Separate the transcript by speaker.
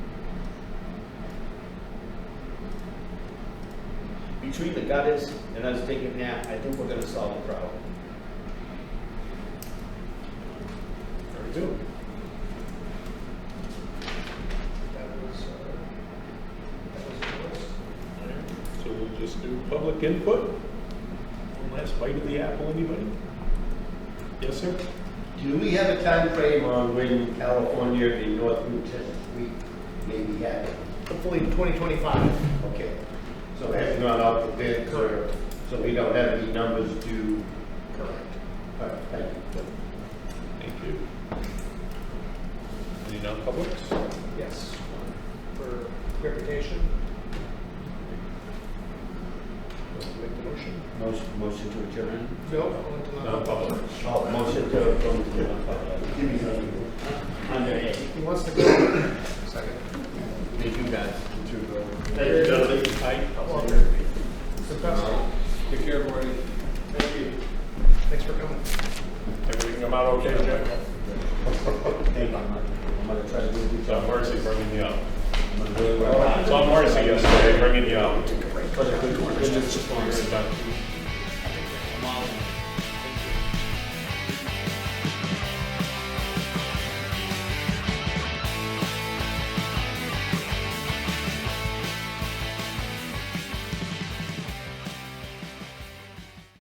Speaker 1: between the gutters and us digging that, I think we're gonna solve the problem.
Speaker 2: Very good. That was, uh, that was the list.
Speaker 3: So we'll just do public input. One last bite of the apple, anybody? Yes, sir?
Speaker 4: Do we have a time frame on when California and North Newton, we maybe have it?
Speaker 2: Hopefully in 2025.
Speaker 4: Okay, so it has not gone out the bids or, so we don't have any numbers due.
Speaker 2: Correct.
Speaker 4: All right, thank you.
Speaker 3: Thank you. Any non-publics?
Speaker 2: Yes, one for reputation. Want to Make the motion?
Speaker 1: Motion, motion to adjourn?
Speaker 2: No, I want to
Speaker 3: Non-public.
Speaker 1: Oh, motion to, from,
Speaker 4: Give me something.
Speaker 1: under A.
Speaker 2: He wants to go. Second.
Speaker 1: Thank you, guys.
Speaker 4: Thank you, gentlemen.
Speaker 2: Successful.
Speaker 4: Take care, Marty. Thank you.
Speaker 2: Thanks for coming.
Speaker 3: Everything come out okay, Jack?
Speaker 1: Thank you. I'm gonna try to do
Speaker 3: It's on Marcy bringing you up.
Speaker 1: I'm gonna do it
Speaker 3: It's on Marcy yesterday bringing you up.
Speaker 1: for the good.
Speaker 3: You're done.